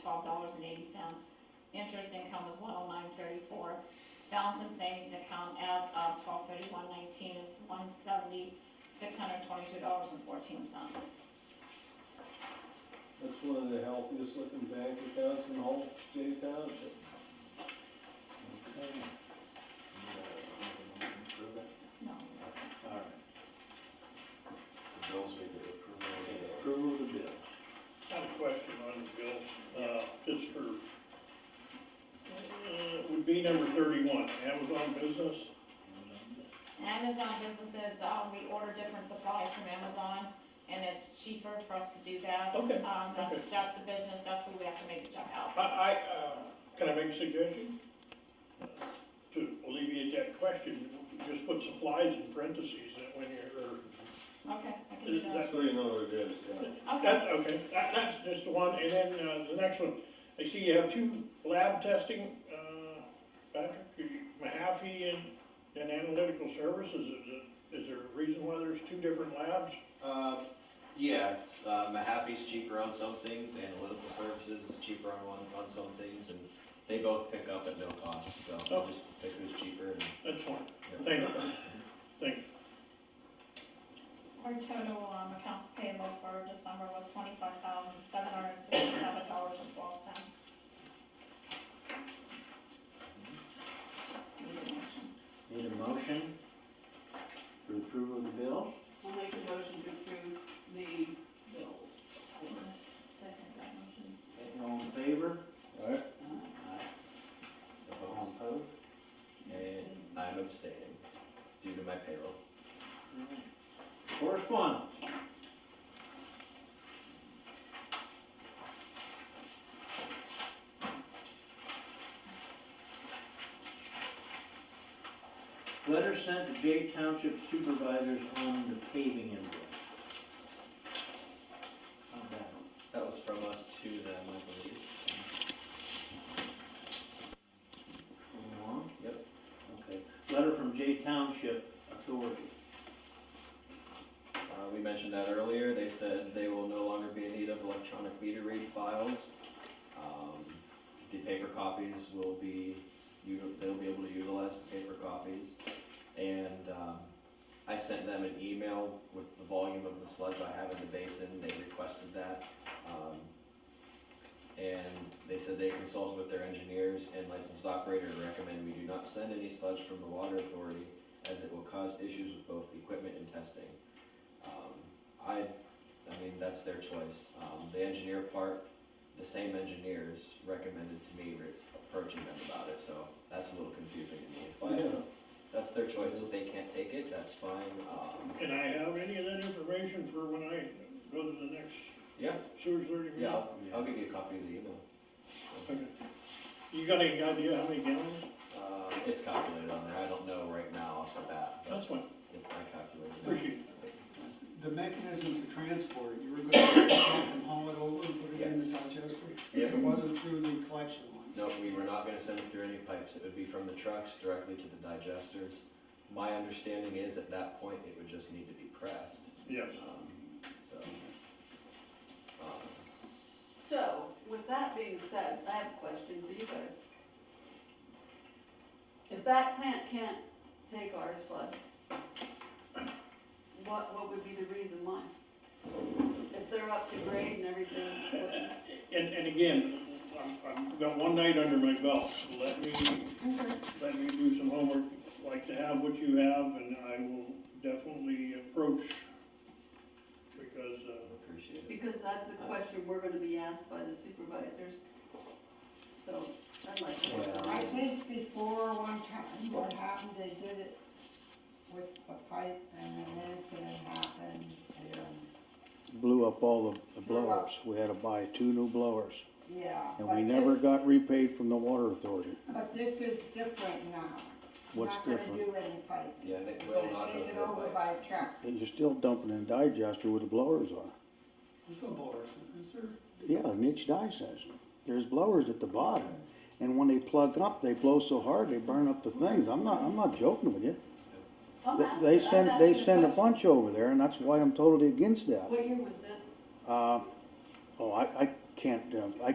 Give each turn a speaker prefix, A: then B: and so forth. A: twelve dollars and eighty cents. Interest income was one oh nine thirty-four. Balance in savings account as of twelve thirty-one nineteen is one seventy, six hundred twenty-two dollars and fourteen cents.
B: That's one of the healthiest looking bank accounts in all Jay Township.
A: No.
B: All right.
C: The bills we did approve.
B: Approval of the bill.
D: I have a question on the bill, uh, just for, uh, would be number thirty-one, Amazon Business.
A: Amazon businesses, uh, we order different supplies from Amazon, and it's cheaper for us to do that.
D: Okay,
A: Um, that's,
D: okay.
A: that's the business, that's who we have to make the check out.
D: I, I, uh, can I make a suggestion? Uh, To alleviate that question, just put supplies in parentheses that when you're, or
A: Okay, I can do that.
B: That's what you know what it is, yeah.
A: Okay,
D: That, okay, that, that's just the one, and then, uh, the next one, I see you have two lab testing, uh, Patrick, you- Mahaffey and, and Analytical Services, is it, is there a reason why there's two different labs?
C: Uh, yeah, it's, uh, Mahaffey's cheaper on some things, Analytical Services is cheaper on one, on some things, and they both pick up at no cost, so we'll just pick who's cheaper and.
D: That's fine,
C: yeah.
D: thank you.
A: our total, um, accounts payable for December was twenty-five thousand, seven hundred and sixty-seven dollars and twelve cents. Need a motion?
E: Need a motion for approval of the bill?
F: I'll make a motion to approve the bills.
A: Second that motion.
E: All in favor?
B: All right,
E: Aye. All
C: Opposed?
E: opposed?
A: Abstain.
C: And I'm abstaining due to my payroll.
E: Alright. Correspondence? Letter sent to Jay Township supervisors on the paving invoice. How's that?
C: That was from us to them, I believe.
E: Moving along? Yep. Okay. Letter from Jay Township Authority.
C: Uh, we mentioned that earlier, they said they will no longer be in need of electronic meter read files. Um, The paper copies will be, you, they'll be able to utilize the paper copies. And, um, I sent them an email with the volume of the sludge I have in the basin, they requested that. Um, And they said they consulted with their engineers and licensed operator and recommend we do not send any sludge from the water authority as it will cause issues with both the equipment and testing. Um, I, I mean, that's their choice. Um, the engineer part, the same engineers recommended to me re- approaching them about it, so that's a little confusing to me.
B: Yeah.
C: But that's their choice. If they can't take it, that's fine. Um,
D: Can I have any of that information for when I go to the next
C: yeah,
D: sewer authority meeting?
C: yeah, I'll, I'll give you a copy of the email.
D: Okay. You got any idea how many gallons?
C: Uh, it's calculated on there. I don't know right now off the bat, but
D: That's fine,
C: it's, I calculated it.
D: appreciate it.
G: The mechanism to transport, you were gonna dump and haul it over and put it in the
C: Yes.
G: digester?
C: Yep.
G: It wasn't through the collection line?
C: No, we were not gonna send it through any pipes, it would be from the trucks directly to the digesters. My understanding is at that point, it would just need to be pressed,
D: Yes.
C: um, so. um,
F: So, with that being said, I have a question for you guys. If that plant can't take our sludge, what, what would be the reason why? If they're up to grade and everything, what-
D: Uh, And, and again, I'm, I've got one night under my belt, let me let me do some homework, like to have what you have, and I will definitely approach, because, uh,
C: Appreciate it.
F: because that's the question we're gonna be asked by the supervisors. So, I'd like to.
C: Well,
H: I think before one time, what happened, they did it with a pipe and an incident happened and,
I: blew up all the- the
H: Blew up.
I: blowers. We had to buy two new blowers.
H: yeah.
I: And
H: but
I: we never
H: this-
I: got repaid from the water authority.
H: But this is different now.
I: What's
H: Not
I: different?
H: gonna do any pipe.
C: Yeah, they will not go
H: Take it
C: through a
H: over
C: pipe.
H: by a truck.
I: And you're still dumping in a digester where the blowers are.
G: There's no blowers, is there?
I: Yeah, an inch digester. There's blowers at the bottom. And when they plug up, they blow so hard, they burn up the things. I'm not, I'm not joking with you.
F: I'm
I: They-
F: asking-
I: They
F: I'm
I: send, they
F: asking a
I: send a
F: question.
I: bunch over there and that's why I'm totally against that.
F: What year was this?
I: Uh, oh, I, I can't, uh, I